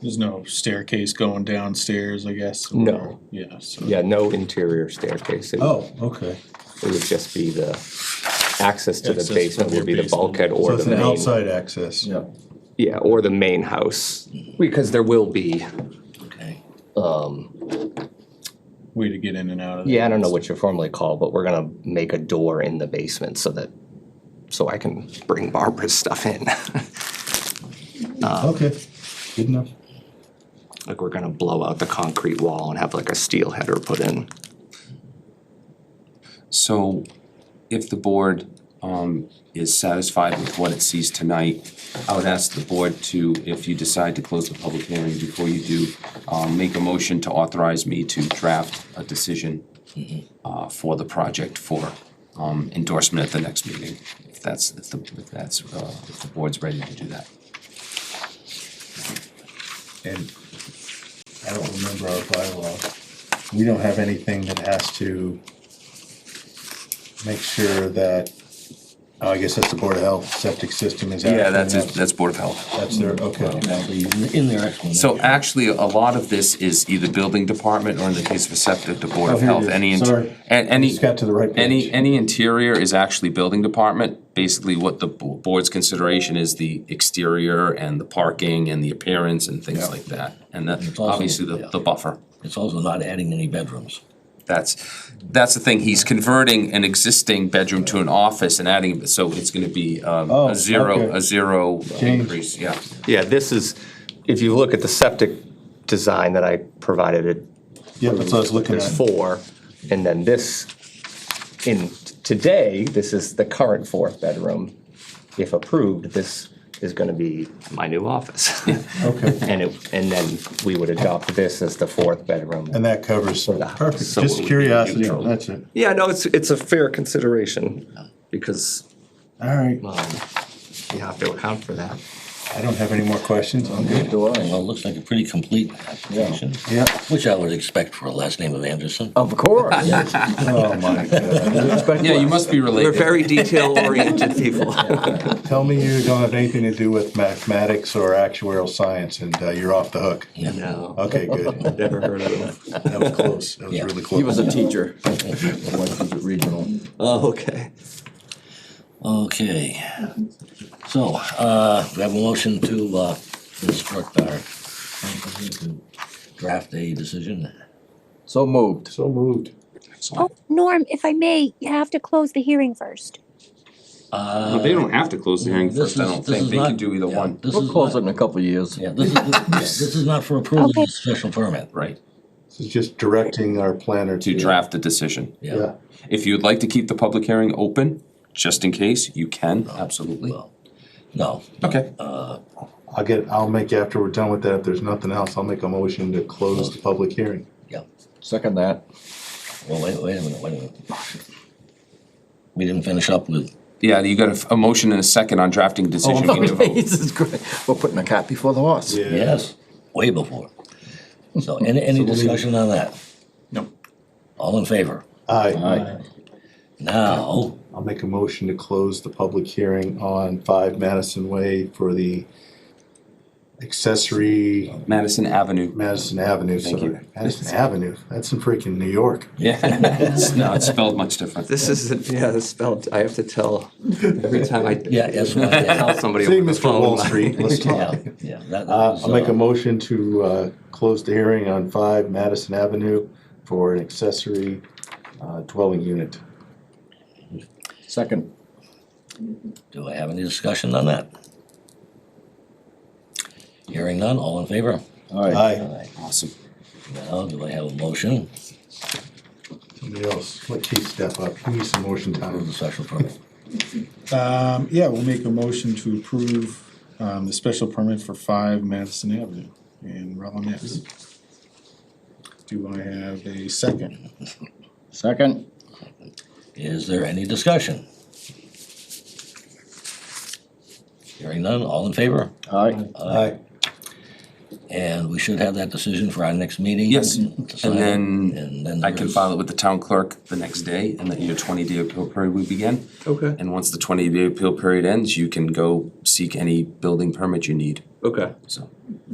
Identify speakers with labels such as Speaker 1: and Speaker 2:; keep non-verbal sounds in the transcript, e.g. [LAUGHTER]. Speaker 1: There's no staircase going downstairs, I guess? or-
Speaker 2: No.
Speaker 1: Yeah, so.
Speaker 2: Yeah, no interior staircase. It-
Speaker 3: Oh, okay.
Speaker 2: It would just be the access to the
Speaker 1: Access from
Speaker 2: basement
Speaker 1: your
Speaker 2: would be the
Speaker 1: basement.
Speaker 2: bulkhead
Speaker 3: So
Speaker 2: or
Speaker 3: it's
Speaker 2: the
Speaker 3: an
Speaker 2: main.
Speaker 3: outside access.
Speaker 4: Yeah.
Speaker 2: Yeah, or the main house, because there will be,
Speaker 4: Okay.
Speaker 1: Way to get in and out of there.
Speaker 2: yeah, I don't know what you formally call, but we're gonna make a door in the basement so that, so I can bring Barbara's stuff in. [LAUGHS]
Speaker 3: Okay, good enough.
Speaker 2: Like, we're gonna blow out the concrete wall and have like a steel header put in.
Speaker 4: So if the board um is satisfied with what it sees tonight, I would ask the board to, if you decide to close the public hearing before you do, um make a motion to authorize me to draft a decision uh for the project for um endorsement at the next meeting, if that's, if the, if that's, uh if the board's ready to do that.
Speaker 3: And I don't remember our bylaw. We don't have anything that has to make sure that, oh, I guess that's the Board of Health, septic system is.
Speaker 4: Yeah, that's
Speaker 3: active.
Speaker 4: it, that's Board of Health.
Speaker 3: That's their, okay.
Speaker 5: In their explanation.
Speaker 4: So actually, a lot of this is either building department or in the case of a septic, the board
Speaker 3: Oh,
Speaker 4: of
Speaker 3: here it
Speaker 4: health,
Speaker 3: is.
Speaker 4: any. int-
Speaker 3: Sorry.
Speaker 4: And any,
Speaker 3: Just got to the right
Speaker 4: any,
Speaker 3: page.
Speaker 4: any interior is actually building department. Basically, what the bo- board's consideration is the exterior and the parking and the appearance and
Speaker 5: Yeah.
Speaker 4: things like that. And that,
Speaker 5: also-
Speaker 4: obviously, the,
Speaker 5: yeah.
Speaker 4: the buffer.
Speaker 5: It's also not adding any bedrooms.
Speaker 4: That's, that's the thing, he's converting an existing bedroom to an office and adding, so it's gonna be um,
Speaker 3: Oh,
Speaker 4: a zero,
Speaker 3: okay.
Speaker 4: a zero
Speaker 3: Change.
Speaker 4: increase, yeah.
Speaker 2: Yeah, this is, if you look at the septic design that I provided, it
Speaker 3: Yeah, that's what I was looking
Speaker 2: There's
Speaker 3: at.
Speaker 2: four, and then this, in, today, this is the current fourth bedroom. If approved, this is gonna be my new office.
Speaker 3: Okay.
Speaker 2: And it, and then we would adopt this as the fourth
Speaker 3: And
Speaker 2: bedroom.
Speaker 3: that covers,
Speaker 2: that.
Speaker 3: perfect,
Speaker 2: So it would
Speaker 3: just
Speaker 2: be
Speaker 3: curiosity,
Speaker 2: neutral.
Speaker 3: that's it.
Speaker 2: Yeah, no, it's, it's a fair consideration, because,
Speaker 3: All right,
Speaker 2: um, you have to account for that.
Speaker 3: I don't have any more questions, I'm good.
Speaker 5: Well, it looks like a pretty complete application.
Speaker 3: Yeah.
Speaker 5: Which I would expect for a last name of Anderson.
Speaker 2: Of [LAUGHS] course.
Speaker 3: Oh, my [LAUGHS] God.
Speaker 4: Yeah, you must be related.
Speaker 2: We're very detail-oriented people.
Speaker 3: Tell me you don't have anything to do with mathematics or actuarial science and uh, you're off the hook.
Speaker 2: No,
Speaker 3: Okay, good.
Speaker 2: never heard of them.
Speaker 3: That was close. That was
Speaker 5: Yeah.
Speaker 3: really
Speaker 6: He was
Speaker 3: close.
Speaker 6: a teacher. My wife was at regional.
Speaker 2: Oh, okay.
Speaker 5: Okay. So, uh, we have a motion to, uh, instruct our company to draft a decision.
Speaker 6: So moved.
Speaker 3: So moved.
Speaker 7: Oh, Norm, if I may, you have to close the hearing first.
Speaker 4: Well, they don't have to close the hearing
Speaker 5: Uh, This
Speaker 4: first, I
Speaker 5: is-
Speaker 4: don't
Speaker 5: this
Speaker 4: think,
Speaker 5: is
Speaker 4: they can
Speaker 5: not-
Speaker 4: do either
Speaker 5: yeah,
Speaker 4: one,
Speaker 5: This
Speaker 6: We'll
Speaker 5: is
Speaker 6: close it
Speaker 5: not,
Speaker 6: in a couple of years.
Speaker 5: yeah, this is, yeah, [LAUGHS] this is not for approval,
Speaker 7: Okay.
Speaker 5: it's a special permit.
Speaker 4: right?
Speaker 3: This is just directing our planner
Speaker 4: To
Speaker 3: to.
Speaker 4: draft a decision.
Speaker 3: Yeah.
Speaker 4: If you'd like to keep the public hearing open, just in case, you can,
Speaker 5: Oh,
Speaker 4: absolutely.
Speaker 5: Well, No,
Speaker 4: Okay.
Speaker 3: I'll get, I'll make, after we're done with that, if there's nothing else, I'll make a motion to close the public hearing.
Speaker 5: yeah,
Speaker 6: Second that.
Speaker 5: well, wait, wait a minute, wait a minute. We didn't finish up with,
Speaker 4: Yeah, you got a, f- a motion and a second on drafting decision, we need a vote.
Speaker 6: [LAUGHS] Jesus Christ. We're putting a cat before the horse.
Speaker 5: yes, way before. So any, any discussion on that?
Speaker 1: No.
Speaker 5: All in favor?
Speaker 3: Aye.
Speaker 6: Aye.
Speaker 5: Now,
Speaker 3: I'll make a motion to close the public hearing on five Madison Way for the accessory
Speaker 4: Madison
Speaker 5: [LAUGHS]
Speaker 4: Avenue.
Speaker 3: Madison Avenue,
Speaker 4: Thank
Speaker 3: sorry.
Speaker 4: you.
Speaker 3: Madison Avenue, that's in freaking New York.
Speaker 4: Yeah, it's not it's spelled much different.
Speaker 2: This isn't, yeah, it's spelled, I have to tell every time I
Speaker 5: yeah, yes,
Speaker 4: [LAUGHS]
Speaker 5: well, yeah,
Speaker 2: tell somebody
Speaker 3: Say,
Speaker 2: over the
Speaker 3: Mr. Wall
Speaker 2: phone.
Speaker 3: Street, [LAUGHS] let's
Speaker 5: yeah,
Speaker 3: talk.
Speaker 5: yeah, that- that
Speaker 3: Uh,
Speaker 5: was,
Speaker 3: I'll make
Speaker 5: uh,
Speaker 3: a motion to, uh, close the hearing on five Madison Avenue for an accessory, uh, dwelling unit.
Speaker 6: Second.
Speaker 5: Do I have any discussion on that? Hearing none, all in favor?
Speaker 6: Aye.
Speaker 3: Aye.
Speaker 4: Awesome.
Speaker 5: Now, do I have a motion?
Speaker 3: Somebody else, let Keith step up, he needs some motion
Speaker 5: Approve
Speaker 3: time.
Speaker 5: the special permit.
Speaker 1: Um, yeah, we'll make a motion to approve, um, the special permit for five Madison Avenue in Rollins. Do I have a second?
Speaker 6: Second.
Speaker 5: Is there any discussion? Hearing none, all in favor?
Speaker 6: Aye.
Speaker 3: Aye.
Speaker 5: And we should have that decision for our next meeting?
Speaker 4: Yes,
Speaker 5: Decide
Speaker 4: and
Speaker 5: it,
Speaker 4: then
Speaker 5: And then.
Speaker 4: I can file it with the town clerk the next day, and then your twenty-day appeal period will begin.
Speaker 2: Okay,
Speaker 4: And once the twenty-day appeal period ends, you can go seek any building permit you need,
Speaker 2: okay.
Speaker 4: so.